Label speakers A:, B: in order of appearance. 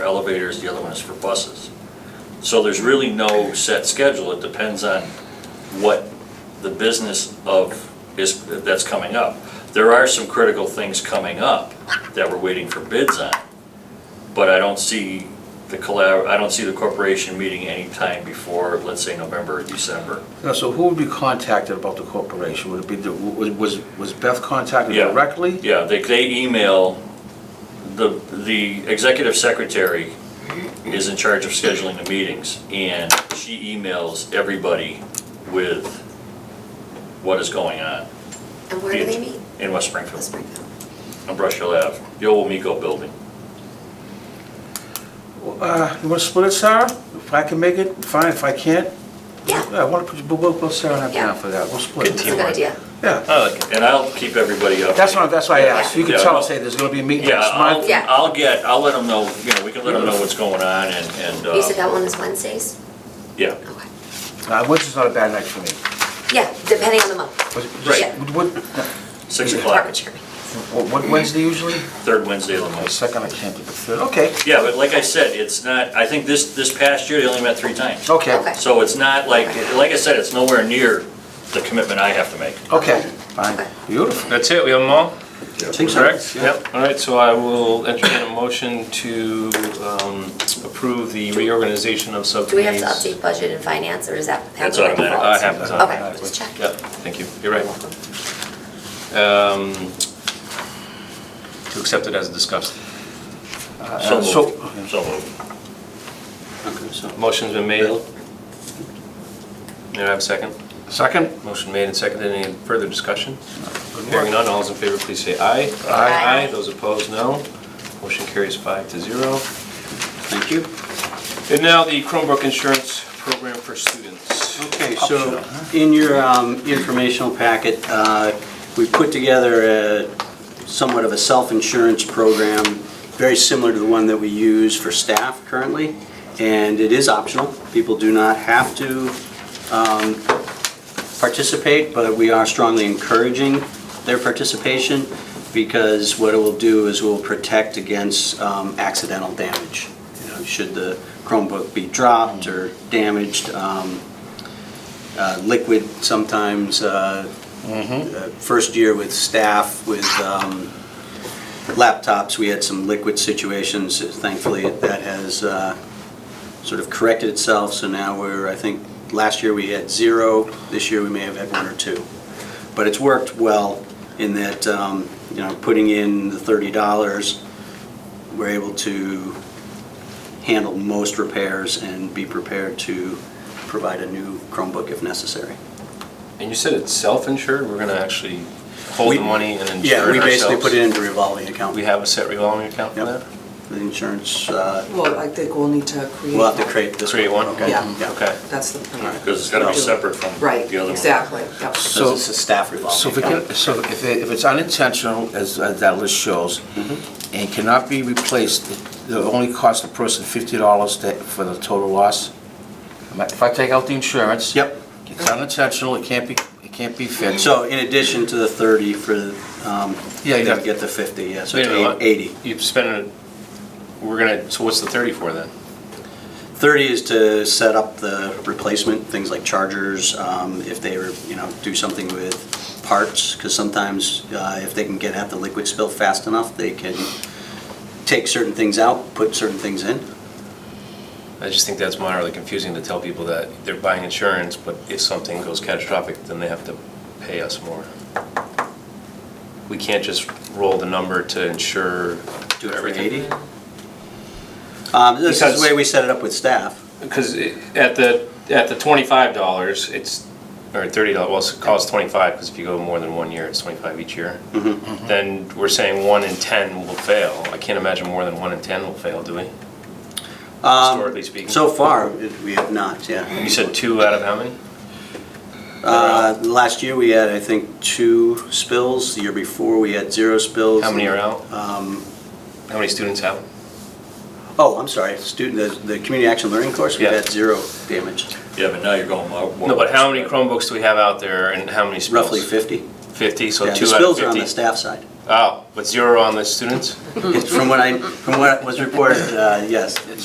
A: elevators, the other one is for buses. So there's really no set schedule, it depends on what the business of, is, that's coming up. There are some critical things coming up that we're waiting for bids on, but I don't see the collab, I don't see the corporation meeting anytime before, let's say, November or December.
B: Now, so who would be contacted about the corporation? Would it be, the- was- was was Beth contacted
A: Yeah.
B: directly?
A: Yeah, they, they email, the, the executive secretary is in charge of scheduling the meetings, and she emails everybody with what is going on
C: And where do they meet?
A: in West
C: Let's
A: Springfield,
C: bring them.
A: on Brush Hill Ave, the old Miko building.
B: Uh, You want to split it, Sarah? If I can make it, fine, if I can't,
C: Yeah,
B: yeah, I want to put, we'll put Sarah and I
C: Yeah.
B: down for that, we'll split
C: that's a
B: it.
C: good idea.
B: Yeah,
A: I like it. And I'll keep everybody up.
B: that's why, that's why I asked, you can
A: Yeah.
B: tell us, hey, there's gonna be a meeting
A: Yeah,
B: next
A: I'll,
B: month.
C: Yeah.
A: I'll get, I'll let them know, you know, we can let them know what's going on and, and,
C: You said
A: uh,
C: that one is Wednesdays?
A: yeah.
C: Okay.
B: Uh, Wednesday's not a bad night for me.
C: Yeah, depending on the month.
B: Was-
A: Right.
B: What,
A: Six
C: Department
A: o'clock,
C: chair.
B: what- what Wednesday usually?
A: third Wednesday of the
B: My
A: month.
B: second, I can't do the third, okay,
A: Yeah, but like I said, it's not, I think this, this past year, they only met three times.
B: okay,
C: Okay.
A: So it's not like, like I said, it's nowhere near the commitment I have to make.
B: okay, fine,
C: Okay.
B: beautiful.
D: That's it, we have them all? Correct?
B: Yeah.
D: All right, so I will entertain a motion to um, approve the reorganization of
C: Do we have
D: subcommittees.
C: to update budget and finance, or is that?
A: That's
C: happen by
A: automatic.
C: default?
D: Uh, it happens
C: Okay,
D: automatically.
C: just checking.
D: Yeah, thank you, you're right. Um, To accept it as discussed.
A: So
B: Uh,
A: moved. So moved.
D: Motion's been made. May I have a second?
B: Second?
D: Motion made and seconded, any further discussion?
B: Good work.
D: Hearing none, all those in favor, please say aye.
C: Aye.
D: Those opposed, no. Motion carries five to zero.
B: Thank you.
D: And now the Chromebook Insurance Program for Students.
E: Okay,
B: Optional,
E: so
B: huh?
E: in your um, informational packet, uh, we put together a somewhat of a self-insurance program, very similar to the one that we use for staff currently, and it is optional. People do not have to um, participate, but we are strongly encouraging their participation because what it will do is will protect against um, accidental damage. You know, Should the Chromebook be dropped or damaged, um, uh, liquid sometimes. uh, uh, First year with staff, with um, laptops, we had some liquid situations. Thankfully, that has uh, sort of corrected itself, so now we're, I think, last year we had zero, this year we may have had one or two. But it's worked well in that, um, you know, putting in the $30, we're able to handle most repairs and be prepared to provide a new Chromebook if necessary.
D: And you said it's self-insured, we're gonna actually hold
E: We-
D: the money and insure
E: Yeah,
D: it
E: we basically
D: ourselves?
E: put it into a revolving account.
D: We have a set revolving account for
E: Yep.
D: that?
E: The insurance, uh,
F: Well, I think we'll need to create.
E: we'll have to create this.
D: Create one?
E: Okay.
F: Yeah.
D: Okay.
F: That's the plan.
A: Because it's gotta be
E: No.
A: separate from the
F: Right,
A: other one.
F: exactly, yep.
E: So it's a staff
B: So
E: revolving
B: if it
E: account.
B: can, so if it, if it's unintentional, as as that list shows, and cannot be replaced, it- it'll only cost the person fifty dollars for the total loss? Am I- If I take out the insurance?
E: Yep.
B: It's unintentional, it can't be, it can't be fixed.
E: So in addition to the 30 for, um,
B: Yeah,
E: they
B: you got-
E: get the 50, yeah, so
D: Wait a minute,
E: it's
D: what?
E: 80.
D: You've spent, it- we're gonna, so what's the thirty for then?
E: 30 is to set up the replacement, things like chargers, um, if they were, you know, do something with parts, because sometimes uh, if they can get at the liquid spill fast enough, they can take certain things out, put certain things in.
D: I just think that's moderately confusing to tell people that they're buying insurance, but if something goes catastrophic, then they have to pay us more. We can't just roll the number to insure
E: Do it for
D: everything.
E: 80? Um, This is
D: Because-
E: the way we set it up with staff.
D: Because it- at the, at the twenty-five dollars, it's, or thirty dollars, well, it's- it costs twenty-five, because if you go more than one year, it's twenty-five each year.
E: Mm-hmm.
D: Then we're saying one in ten will fail. I can't imagine more than one in ten will fail, do we?
E: Um,
D: Historically speaking.
E: So far, it- we have not, yeah.
D: You said two out of how many?
E: Uh, Last year, we had, I think, two spills. The year before, we had zero spills.
D: How many are out?
E: Um,
D: How many students have?
E: Oh, I'm sorry, student, the, the community action learning course, we
D: Yeah.
E: had zero damage,
A: Yeah, but now you're going more. more-
D: No, but how many Chromebooks do we have out there and how many spills?
E: roughly 50.
D: Fifty, so
E: Yeah,
D: two out
E: the
D: of
E: spills are on the
D: fifty.
E: staff side.
D: Oh, but zero on the students?
E: It's From what I, from what was reported, uh, yes,